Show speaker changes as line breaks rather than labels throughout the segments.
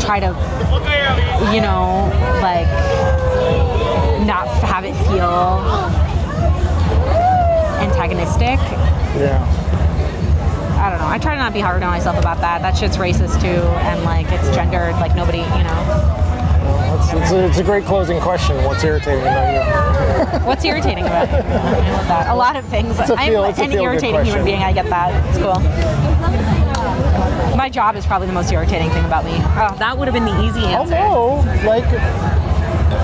try to, you know, like not have it feel antagonistic.
Yeah.
I don't know. I try to not be hard on myself about that. That shit's racist too, and like it's gendered. Like nobody, you know.
Well, It's, it's, a, it's a great closing question. What's irritating about you?
What's irritating about it? I love that. A lot of things.
a feel-
I'm
it's a
an
feel-good
irritating human
question.
being. I get that. It's cool. My job is probably the most irritating thing about me. Oh, that would have been the easy
Oh
answer.
no! Like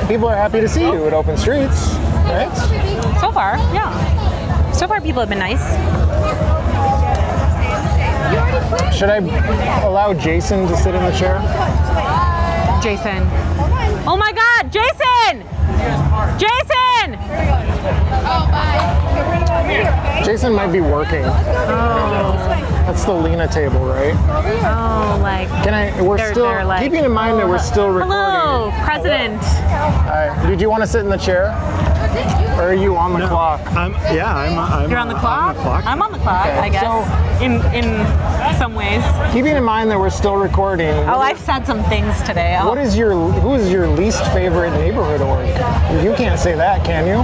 people are happy to see you at open streets, right?
So far, yeah. So far, people have been nice.
Should I allow Jason to sit in the chair?
Jason. Oh my God, Jason! Jason!
Jason might be working. That's the Lena table, right?
Oh, like.
Can I? We're
They're-
still
they're like-
keeping in mind that we're still recording.
Hello, President.
All right. Did you want to sit in the chair? Or are you on the clock?
I'm, yeah, I'm, uh, I'm
You're on the clock.
I'm the clock.
I'm on the clock, I guess.
so-
in in some ways.
Keeping in mind that we're still recording.
Oh, I've said some things today. Oh,
What is your who is your least favorite neighborhood org? You can't say that, can you?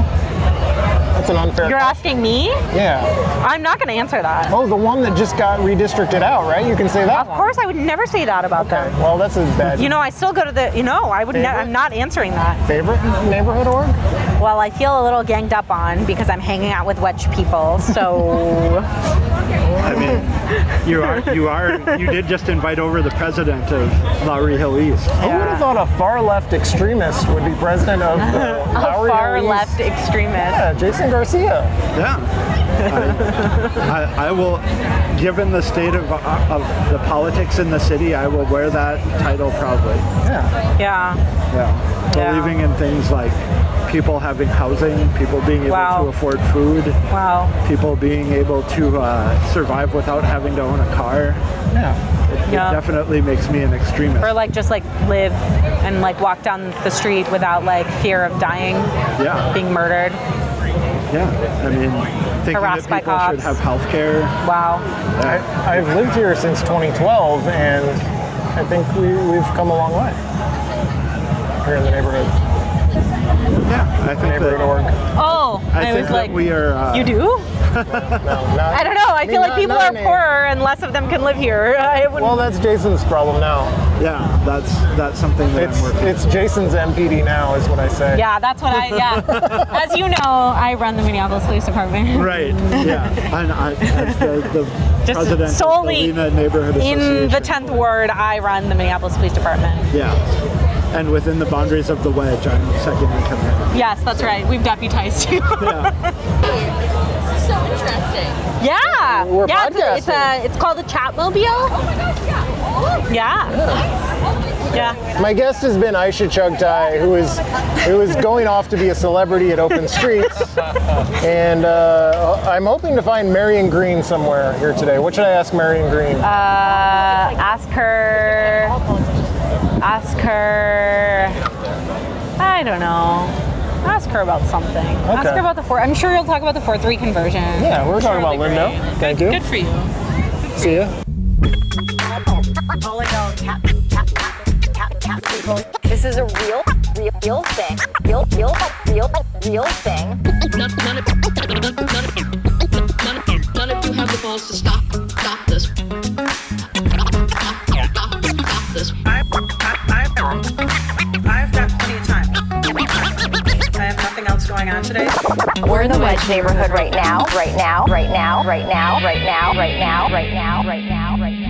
That's an unfair.
you're asking me?
yeah.
I'm not going to answer that.
Oh, the one that just got redistricted out, right? You can say that.
Of course, I would never say that about
Okay.
them.
Well, that's as bad.
You know, I still go to the. You know, I would. Ne-
Favorite?
I'm not answering that.
favorite neighborhood org?
Well, I feel a little ganged up on because I'm hanging out with wedge people. So
I mean, you are, you are, you did just invite over the president of Lowry Hill East.
Who would have thought a far left extremist would be president of the
a
Lowry
far
East-
left extremist.
Yeah, Jason Garcia.
Yeah. I, I, I will, given the state of, of the politics in the city, I will wear that title proudly.
Yeah.
Yeah.
Yeah.
Yeah.
Believing in things like people having housing, people being able
Wow.
to afford food,
Wow.
people being able to uh, survive without having to own a car.
Yeah.
It,
Yeah.
it definitely makes me an extremist.
Or like just like live and like walk down the street without like fear of dying,
yeah.
being murdered.
Yeah. I mean, thinking
Harassed by
that people
cops.
should have health care.
Wow.
I, I've lived here since 2012, and I think we, we've come a long way here in the neighborhood.
Yeah. I think
Neighborhood org.
that,
Oh,
I
I,
think
was
that
like,
we are. Uh,
you do?
No, not,
I don't know. I,
mean,
feel like
not-
people
not
are
in a-
poorer and less of them can live here. I wouldn't.
Well, that's Jason's problem now.
Yeah. That's that's something that
It's
I'm working.
it's Jason's MPD now, is what I say.
yeah, that's what I. Yeah. As you know, I run the Minneapolis Police Department.
Right. Yeah. And I, as the, the
Just
president of the
solely
Lena neighborhood
In the
Association.
10th ward, I run the Minneapolis Police Department.
Yeah. And within the boundaries of the wedge, I'm second in command.
Yes, that's right. We've deputized you.
Yeah.
So interesting.
yeah.
We're
yeah, it's a- It's,
podcasting.
a, it's called a Chatmobile.
Oh my gosh, yeah.
Yeah. Yeah.
My guest has been Aisha Chugtai, who is who is going off to be a celebrity at Open Streets, and uh, I'm hoping to find Marion Green somewhere here today. What should I ask Marion Green?
Uh, ask her. Ask her. I don't know. Ask her about something. Ask
Okay.
her about the four. I'm sure you'll talk about the four three conversion.
yeah, we're talking about
Charlie
Lindo. Thank you.
Good for you.
See ya.
This is a real, real, real thing. Real, real, real, real thing.
none, none, of, none, none, none, none, none of you have the balls to stop, stop this. Stop, stop, stop this.
I've, I, I've, I've got plenty of time. I have nothing else going on today.
We're in the Wedge neighborhood right now, right now, right now, right now, right now, right now, right now, right now, right now, right now.